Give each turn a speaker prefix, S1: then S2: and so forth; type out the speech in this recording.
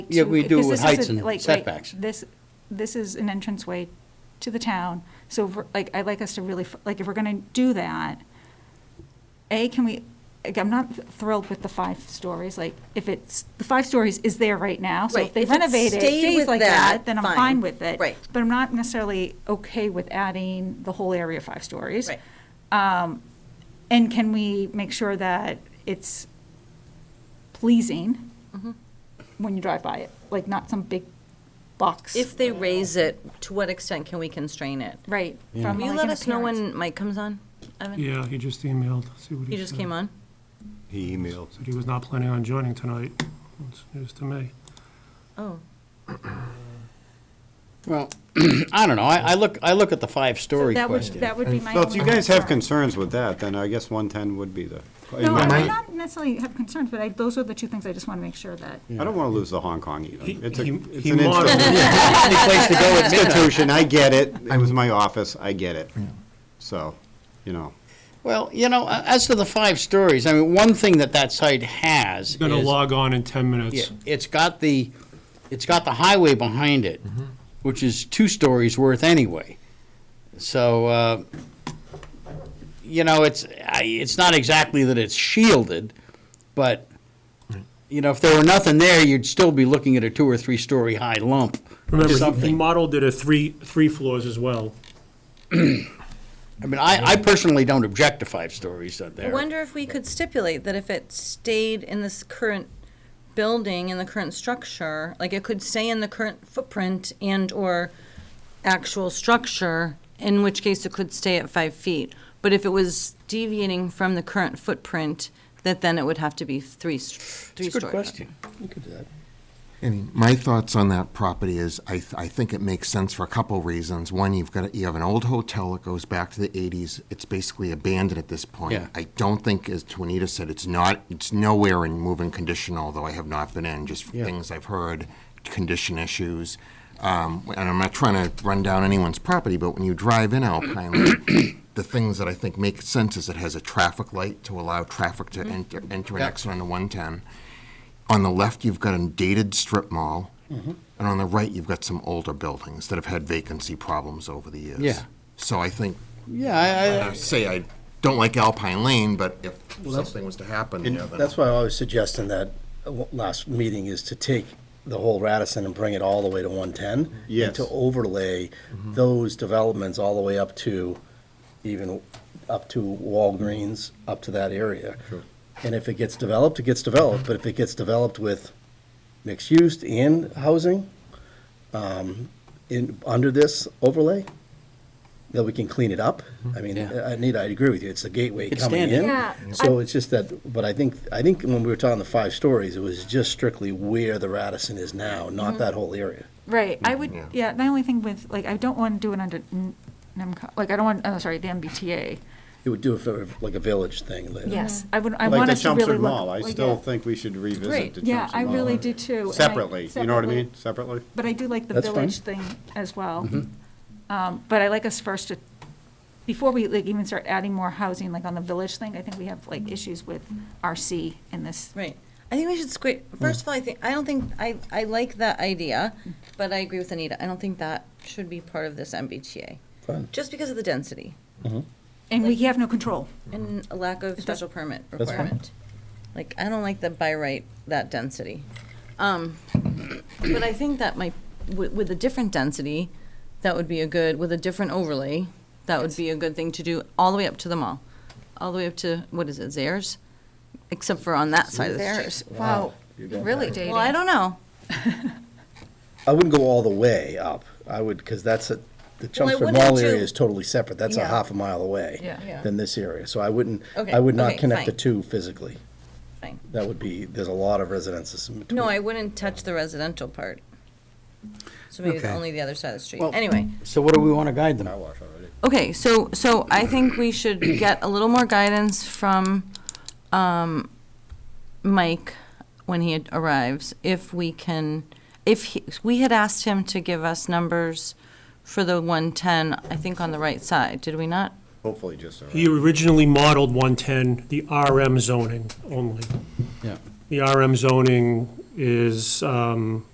S1: Yeah,
S2: to-
S1: we do
S2: because
S1: with
S2: this is
S1: heights
S2: a-
S1: and
S2: like, wait,
S1: setbacks.
S2: This, this is an entranceway to the town, so ver- like, I'd like us to really, f- like, if we're gonna do that, A, can we, like, I'm not thrilled with the five stories, like, if it's, the five stories is there right now, so if
S3: Right,
S2: they
S3: if it
S2: renovate it,
S3: stayed
S2: stays
S3: with
S2: like
S3: that,
S2: that, then I'm
S3: fine.
S2: fine with it.
S3: Right.
S2: But I'm not necessarily okay with adding the whole area five stories.
S3: Right.
S2: Um, And can we make sure that it's pleasing when you drive by it, like not some big box,
S3: If they raise it, to what extent can we constrain it?
S2: right?
S1: Yeah.
S2: from,
S3: Will you
S2: like,
S3: let
S2: an
S3: us know
S2: appearance.
S3: when Mike comes on? Evan,
S4: Yeah, he just emailed, see what he said.
S3: he just came on?
S5: He emailed.
S4: Said he was not planning on joining tonight. It's news to me.
S3: Oh,
S1: Well, I don't know, I, I look, I look at the five-story
S2: That would,
S1: question.
S2: that would be my.
S5: Well, if you
S2: only
S5: guys have
S2: concern.
S5: concerns with that, then I guess 110 would be the,
S2: No, I
S5: I
S2: I not necessarily have concerns, but I, those are the two things I just want to make sure that.
S5: don't want to lose the Hong Kong either.
S4: He-
S5: It's a-
S4: he-
S5: it's
S4: he
S5: an
S4: modeled-
S5: institution.
S1: Any place to go at midnight.
S5: Institution, I get it. It was my office, I get it. So, you know.
S1: Well, you know, a- as to the five stories, I mean, one thing that that site has
S4: He's gonna
S1: is-
S4: log on in 10
S1: Yeah,
S4: minutes.
S1: it's got the, it's got the highway behind it,
S4: Mm-hmm.
S1: which is two stories worth anyway. So, uh, you know, it's, I, it's not exactly that it's shielded, but, you know, if there were nothing there, you'd still be looking at a two or three-story high lump.
S4: Remember, he- he
S1: something.
S4: modeled it at three, three floors as well.
S1: I mean, I, I personally don't object to five stories out
S3: I
S1: there.
S3: wonder if we could stipulate that if it stayed in this current building, in the current structure, like it could stay in the current footprint and/or actual structure, in which case it could stay at five feet. But if it was deviating from the current footprint, that then it would have to be three, three-story.
S1: It's a good question.
S6: I mean, my thoughts on that property is, I, th- I think it makes sense for a couple reasons. One, you've got, you have an old hotel that goes back to the eighties, it's basically abandoned at this point.
S1: Yeah.
S6: I don't think, as Juanita said, it's not, it's nowhere in moving condition, although I have not been in, just
S1: Yeah.
S6: things I've heard, condition issues. Um, and I'm not trying to run down anyone's property, but when you drive in Alpine Lake, the things that I think make sense is it has a traffic light to allow traffic to enter, enter and
S1: Mm-hmm. Yeah.
S6: exit on the one-ten. On the left, you've got a dated strip mall, and on the right, you've got some older buildings that have had vacancy problems over the years.
S1: Yeah.
S6: So I think,
S1: Yeah, I,
S6: I
S1: I,
S6: say I don't like Alpine Lane, but if something was to happen, yeah, then-
S7: That's why I was suggesting that uh, w- last meeting is to take the whole Radisson and bring it all the way to 110.
S5: Yes.
S7: And to overlay those developments all the way up to, even up to Walgreens, up to that area. And if it gets developed, it gets developed, but if it gets developed with mixed use and housing, um, in, under this overlay, that we can clean it up. I mean,
S1: Mm-hmm. Yeah.
S7: I- Anita, I agree with you, it's the gateway
S1: It's
S7: coming
S1: standing.
S7: in.
S2: Yeah,
S7: So it's just that, but I think, I think when we were talking the five stories, it was just strictly where the Radisson is now,
S2: Mm-hmm.
S7: not that whole area.
S2: Right, I would, yeah, my only thing with, like, I don't want to do it under, N- NEMCO like, I don't want, oh, sorry, the MBTA.
S7: It would do it for like a village thing later.
S2: Yes, Mm-hmm. I would, I
S5: Like
S2: want
S5: the
S2: us to really look.
S5: Chelmsford Mall, I
S2: like,
S5: still
S2: yeah.
S5: think we should revisit
S3: Great.
S5: the Chelmsford
S2: Yeah,
S5: Mall.
S2: I really do too. and I-
S5: Separately, you know what I
S2: separately.
S5: mean? Separately?
S2: But I do like the
S7: That's fine. Mm-hmm.
S2: village thing as well. Um, But I like us first to, before we like even start adding more housing, like on the village thing, I think we have like issues with RC in this.
S3: Right. I think we should squeeze, first of all, I think, I don't think, I, I like that idea, but I agree with Anita. I don't think that should be part of this MBTA.
S7: Fine.
S3: Just because of the density
S2: And we have no control.
S3: and a lack of special permit
S7: fine.
S3: requirement. Like, I don't like the by right, that density. Um, but I think that might, with, with a different density, that would be a good, with a different overlay, that would be a good thing to do all the way up to the mall. All the way up to, what is it, Zares? Except for on that side of the street.
S8: There's, wow, really dating.
S3: Well, I don't know.
S7: I wouldn't go all the way up, I would, because that's a, the Chelmsford
S3: wouldn't
S7: Mall
S3: do-
S7: area is totally separate, that's a
S8: Yeah.
S7: half a mile away.
S2: Yeah. Yeah.
S7: Than this area, so I wouldn't,
S3: Okay,
S7: I would not
S3: okay,
S7: connect the
S3: fine.
S7: two physically.
S3: Fine.
S7: That would be, there's a lot of residences in between.
S3: No, I wouldn't touch the residential part. So maybe the-
S1: Okay.
S3: only the other side of the street.
S1: Well-
S3: Anyway,
S1: so what do we want to guide them?
S3: okay, so, so I think we should get a little more guidance from, um, Mike when he arrives, if we can, if he, we had asked him to give us numbers for the 110, I think on the right side, did we not?
S5: Hopefully just. all right.
S4: He originally modeled 110, the RM zoning only.
S1: Yeah.
S4: The RM zoning is, um,